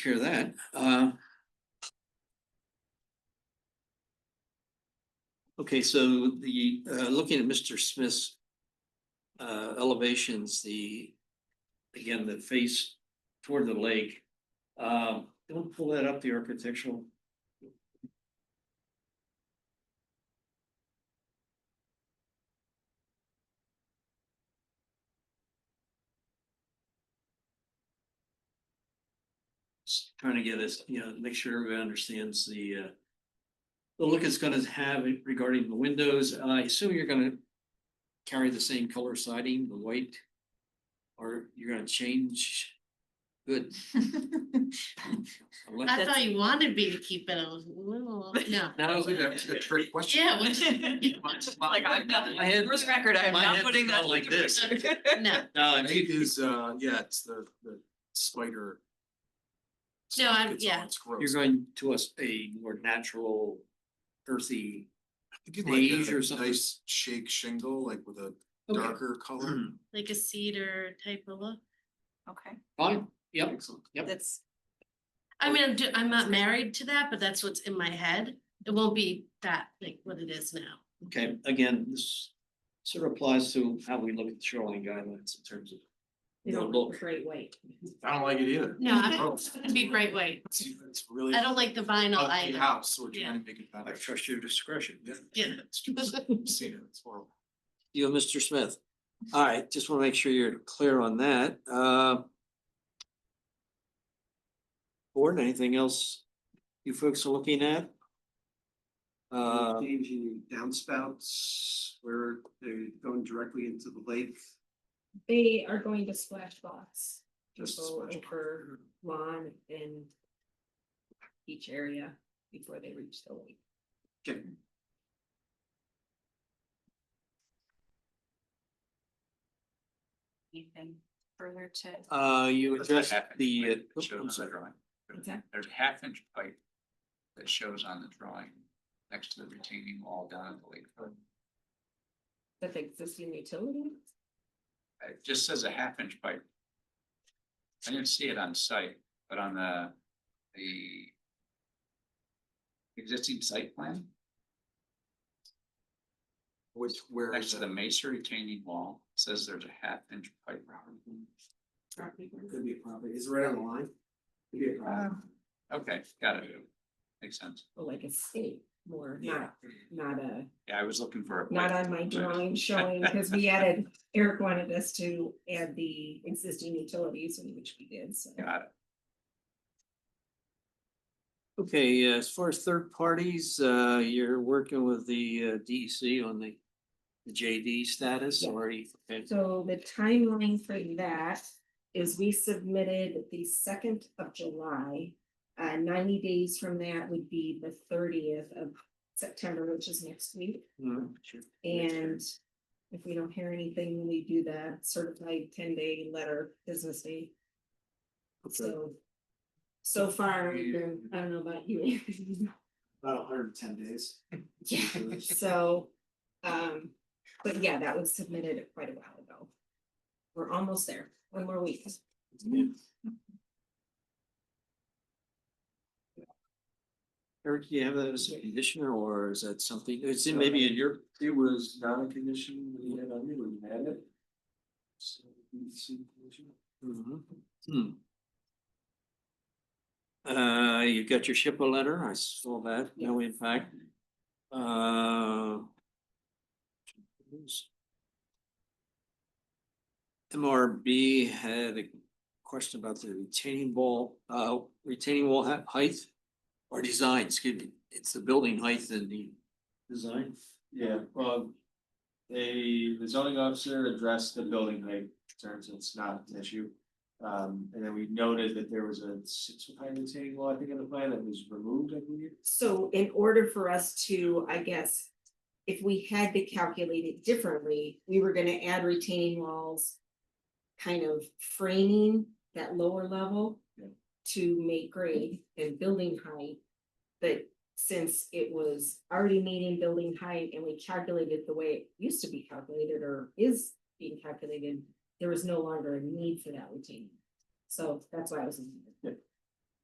Share that, uh. Okay, so the, uh, looking at Mr. Smith's. Uh, elevations, the, again, the face toward the lake. Um, don't pull that up, the architectural. Just Trying to get us, you know, make sure everybody understands the, uh. The look it's gonna have regarding the windows, I assume you're gonna. Carry the same color siding, the white. Or you're gonna change. Good. Unless- I thought you wanted me to keep it a little, no. Now, look, that's a trick question. Yeah, what- Like, I'm not, I had- for the record, I'm my not head's putting that. gone like this. no, No, I I think mean, is, uh, yeah, it's the, the spider. No, stuff I'm- gets yeah. on, It's gross. you're going to us a more natural earthy. I think you'd beige or like a something. nice shake shingle, like with a darker color. Mm, like a cedar type of look. Okay, Fine, yep, Excellent. Yep. that's, I mean, I'm, ju- I'm not married to that, but that's what's in my head. It won't be that, like what it is now. okay, again, this sort of applies to how we look at shoreline guidelines in terms of. They the don't look. look great white. I don't like it either. No, I'm Oh. gonna be great white. It's it's really. I don't like the vinyl ugly either. house, so we're Yeah. trying to make it better. I trust your discretion. Yeah. Yeah. It's just- I've Seen it, it's horrible. You, and Mr. Smith. All right, just want to make sure you're clear on that. Uh, Board, anything else you folks are looking at? Uh, Changing downspouts where they're going directly into the lake, They are going to splash box. Just People splash box. over lawn and beach area before they reach the lake. Okay. anything further to, uh, you That's not addressed half inch the, uh, pipe that oops, shows I'm on the sorry. drawing. What's that? There's a half inch pipe that shows on the drawing next to the retaining wall down at the lakefront. That's existing utility. It just says a half inch pipe. I didn't see it on site, but on the, the existing site plan Which, where next is to the it? Mesa retaining wall it says there's a half inch pipe. could be a problem, is it right on the line? Could be a problem. Okay, got it. Makes sense. Or like a state more, not, not a, Yeah, I was looking for. a not pipe. on my drawing showing, because we added, Eric wanted us to add the existing utilities, which we did, so. Got it. Okay, uh, as far as third parties, uh, you're working with the uh, DEC on the the JD status Yeah. or? you- okay. So the timeline for that is we submitted the second of July. Uh, ninety days from that would be the thirtieth of September, which is next week. Mm, sure. And if we don't hear anything, we do the certified ten day letter business day. Okay. So, so far, we've been- I don't know about you. About hundred and ten days. Yeah, so, um, but yeah, that was submitted quite a while ago. We're almost there, one more week. Eric, do you have that as a conditioner or is that something, it's in- No. maybe in your It was not a condition when you had on you when you had it. So, you see, condition. Mhm. Hmm. Uh, you got your SHPO letter, I saw that, no impact. Uh. MRB had a question about the retaining wall, uh, retaining wall hei- height or design, excuse me, it's the building height and the design. Yeah, well, they, the zoning officer addressed the building height concerns, it's not an issue. Um, and then we noted that there was a six foot high retaining wall, I think, in the plan that was removed, I believe. So in order for us to, I guess, if we had to calculate it differently, we were gonna add retaining walls. Kind of framing that lower level Yeah. to make grade and building height. But since it was already meeting building height and we calculated the way it used to be calculated or is being calculated, there was no longer a need for that retaining. So that's why I was. Yeah.